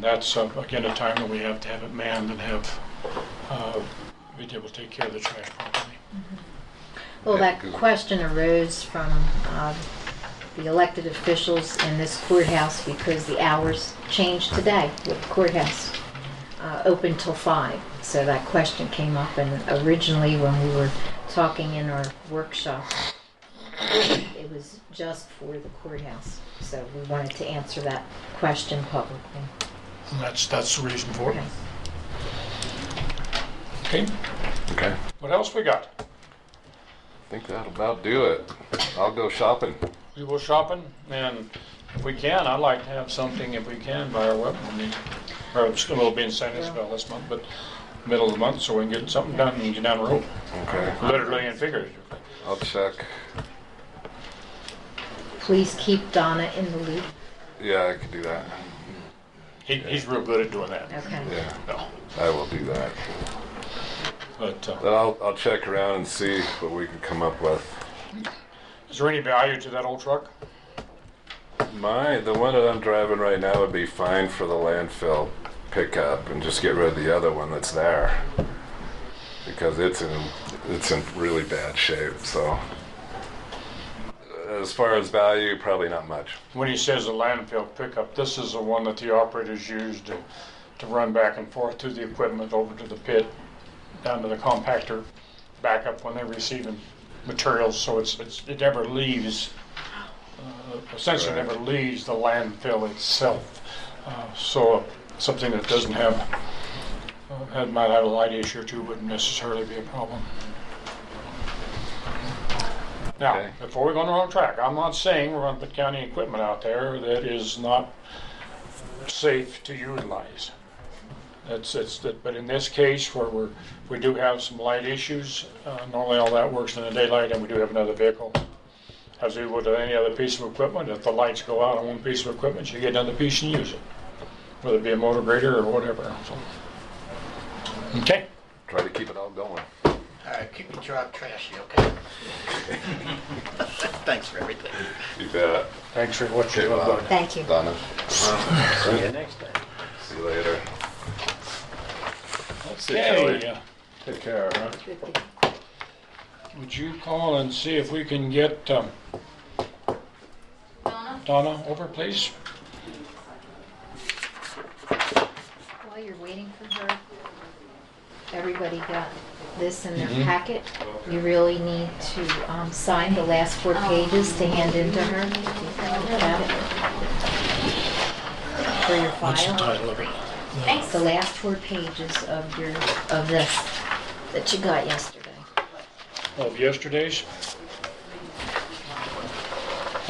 That's, uh, again, a time when we have to have it manned and have, uh, be able to take care of the trash properly. Mm-hmm. Well, Yeah, that 'cause- question arose from um, the elected officials in this courthouse because the hours changed today with courthouse uh, open till five. So that question came up and originally when we were talking in our workshop, it was just for the courthouse. So we wanted to answer that question publicly. And that's, that's the reason for it. Okay. Okay, Okay. I what else we got? think that'll about do it. I'll go shopping. We go shopping, and if we can, I'd like to have something, if we can, by our weapon meeting. Or it's- we'll be in San Isabel this month, but middle of the month, so we can get something done and get down the road, Okay. literally and figuratively. I'll check. Please keep Donna in the loop. Yeah, I could do that. He, he's real good at doing that. Okay. Yeah, No, I will do that. But uh, Then I'll, I'll check around and see what we can come up with. is there any value to that old truck? My, the one that I'm driving right now would be fine for the landfill pickup and just get rid of the other one that's there. Because it's in, it's in really bad shape, so. As far as value, probably not much. When he says a landfill pickup, this is the one that the operators use to, to run back and forth to the equipment over to the pit, down to the compactor, back up when they're receiving materials, so it's, it's, it never leaves, uh, essentially Right. never leaves the landfill itself. Uh, So something that doesn't have, uh, had, might have a light issue or two wouldn't necessarily be a problem. Now, Okay. before we go on the wrong track, I'm not saying we're gonna put county equipment out there that is not safe to utilize. That's, it's, that- but in this case, where we're, we do have some light issues, uh, normally all that works in the daylight, and we do have another vehicle. As we would any other piece of equipment, if the lights go out on one piece of equipment, you get another piece and use it, whether it be a motor grader or whatever, so. Okay? Try to keep it all going. All right, keep your job trashy, okay? Thanks for everything. You bet. Thanks for what Okay, you've well, done. Thank you. Donna, See you next time. see you later. Okay, uh, Take care, huh? would you call and see if we can get um, Donna, Donna over, please? While you're waiting for her, everybody got this in Mm-hmm. their packet. You really need to um, sign the last four pages to hand in to her. Got it? For your file. of it? Thanks. The last four pages of your, of this that you got yesterday. Of yesterday's?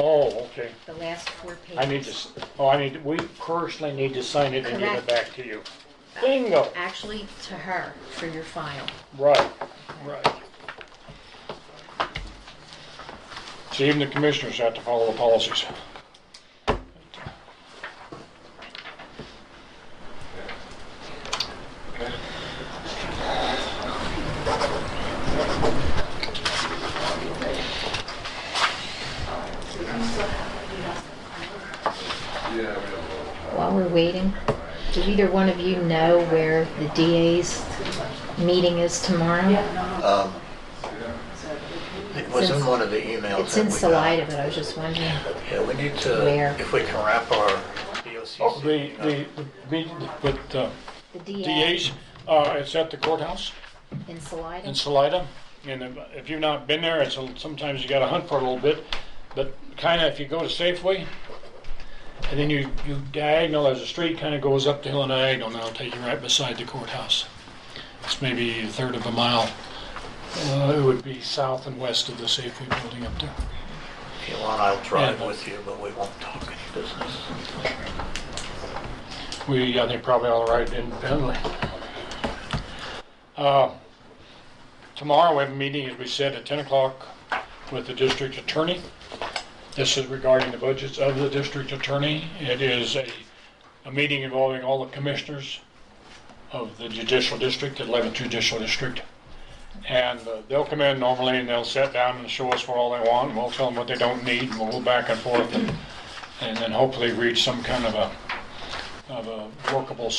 Oh, okay. The last four pages. I need to, s- oh, I need, to- we personally need to sign it and give it Correct. back to you. Bingo, Actually, to her, for your file. right, right. So even the commissioners have to follow the policies. While we're waiting, do either one of you know where the DA's meeting is tomorrow? Um, It was in one of the emails. It's that in we got. Salida, but I was just wondering. Yeah, we need to, Where? if we can wrap our Oh, BOCC. the, meeting up. the, the meeting with uh, The DA DAs, uh, it's at the courthouse in Salida? in Salida. And if- if you've not been there, it's, a- sometimes you gotta hunt for it a little bit. But kinda if you go to Safeway, and then you, you diagonal, there's a street kinda goes up the hill and diagonal, and it'll take you right beside the courthouse. It's maybe a third of a mile. Uh, it would be south and west of the Safeway building up there. If you want, I'll drive Yeah. with you, but we won't talk any business. We, I think, probably all right independently. Uh, Tomorrow, we have a meeting, as we said, at 10 o'clock with the district attorney. This is regarding the budgets of the district attorney. It is a, a meeting involving all the commissioners of the judicial district, the 11th judicial district. And uh, they'll come in normally and they'll sit down and show us what all they want, and we'll tell them what they don't need, and we'll go back and forth, and- and then hopefully reach some kind of a of a workable